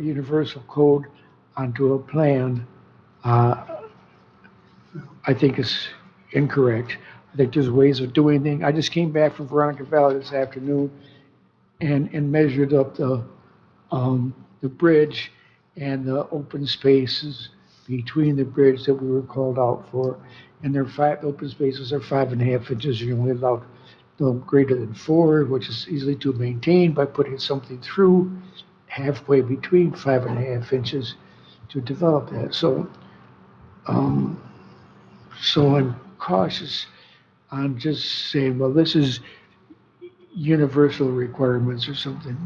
universal code onto a plan, uh, I think is incorrect. I think there's ways of doing things. I just came back from Veronica Valley this afternoon and, and measured up the, um, the bridge and the open spaces between the bridge that we were called out for. And their five, open spaces are five and a half inches, you're only allowed no greater than four, which is easily to maintain by putting something through halfway between five and a half inches to develop that. So, um, so I'm cautious on just saying, well, this is universal requirements or something.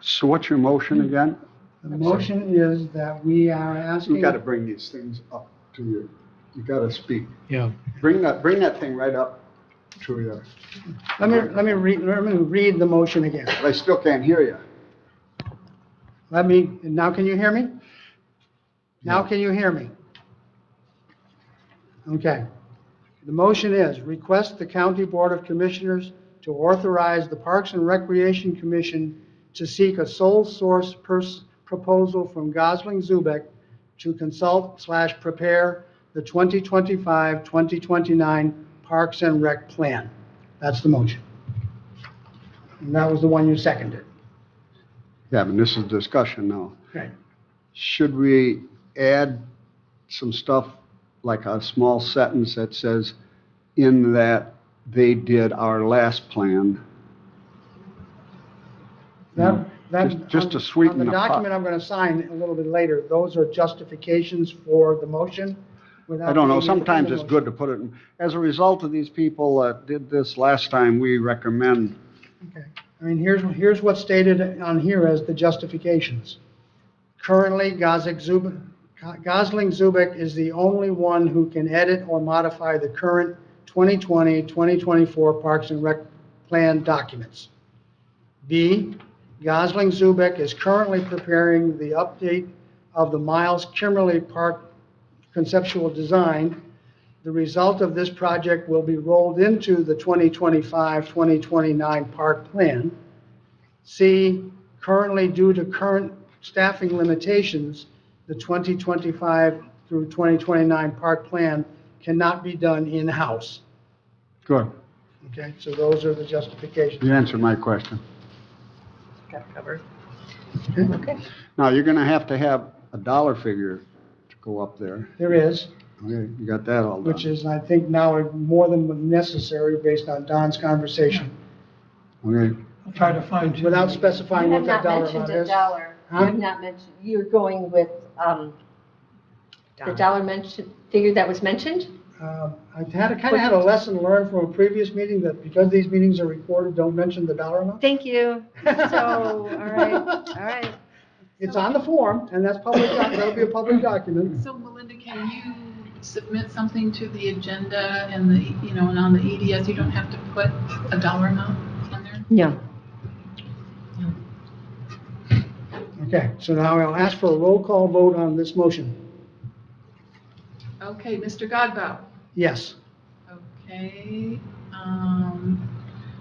So what's your motion Hmm. again? The motion is that we are asking. You gotta bring these things up to you. You gotta speak. Yeah. Bring that, bring that thing right up to you. Let me, let me read, let me read the motion again. But I still can't hear you. Let me, now can you hear me? Now can you hear me? Okay. The motion is, request the County Board of Commissioners to authorize the Parks and Recreation Commission to seek a sole source pers- proposal from Gosling Zubek to consult slash prepare the 2025-2029 Parks and Rec Plan. That's the motion. And that was the one you seconded. Yeah, but this is discussion now. Okay. Should we add some stuff, like a small sentence that says, in that they did our last plan? That, that. Just- just to on- sweeten on the pot. document I'm going to sign a little bit later, those are justifications for the motion without. I don't know, being in the sometimes it's motion. good to put it, in as a result of these people that did this last time, we recommend, Okay. I mean, here's, here's what's stated on here as the justifications. Currently, Gosling Zubek, Gosling Zubek is the only one who can edit or modify the current 2020, 2024 Parks and Rec Plan documents. B, Gosling Zubek is currently preparing the update of the Miles Kimberly Park conceptual design. The result of this project will be rolled into the 2025-2029 park plan. C, currently due to current staffing limitations, the 2025 through 2029 park plan cannot be done in-house. good, Okay, so those are the justifications. you answered my question. Got covered. Now, you're gonna have to have a dollar figure to go up there. There is, Okay, you got that all which done. is, I think now more than necessary based on Don's conversation, Okay, I'll try to find. without You specifying have what that not dollar mentioned amount a is. dollar. You Huh? have not mentioned, you're going with um, the dollar mentioned, figure that was mentioned? Um, I've had, kind of had a lesson learned from a previous meeting that because these meetings are recorded, don't mention the dollar amount. Thank you. So, all right, all right. It's on the form, and that's public, doc- that'll be a public document. So Melinda, can you submit something to the agenda and the, you know, and on the EDS, you don't have to put a dollar amount on there? No. Okay, so now I'll ask for a roll call vote on this motion. Okay, Mr. Godbout. Yes. Okay, um,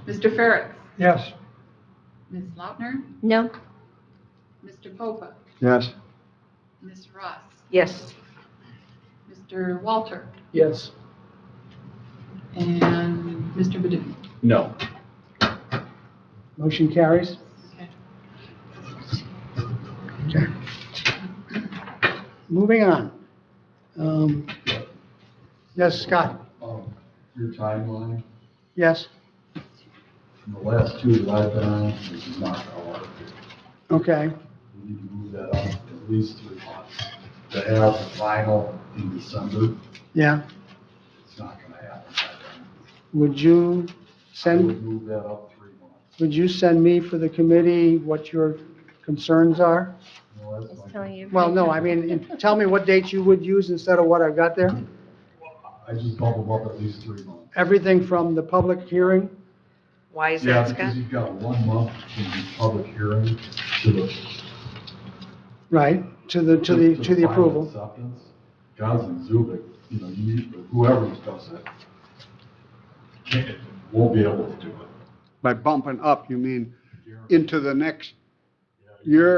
Mr. Ferrick, Yes, Ms. Lautner, No? Mr. Popa, yes, Ms. Ross, Yes. Mr. Walter, Yes. and Mr. Badoo. No. Motion carries. Okay. Moving on. Um, Yes, Scott? um, your timeline, Yes? the last two that I've been on, is not all. Okay, We need to move that up at least three months. To have the final in December, yeah. it's not gonna happen. by Would you then. I send? would move that up three months. Would you send me for the committee what your concerns are? No, that's Just like- telling you. Well, no, I mean, tell me what dates you would use instead of what I've got there. I just bump them up at least three months. Everything from the public hearing, Why is Yeah, that, Scott? Because you've got one month to the public hearing to the. right, to the, to the, to the final approval. Acceptance. Johnson, Zubik, you know, you, whoever does it, can't, won't be able to do it. by bumping up, you mean Guaranteed. into the next Yeah, You're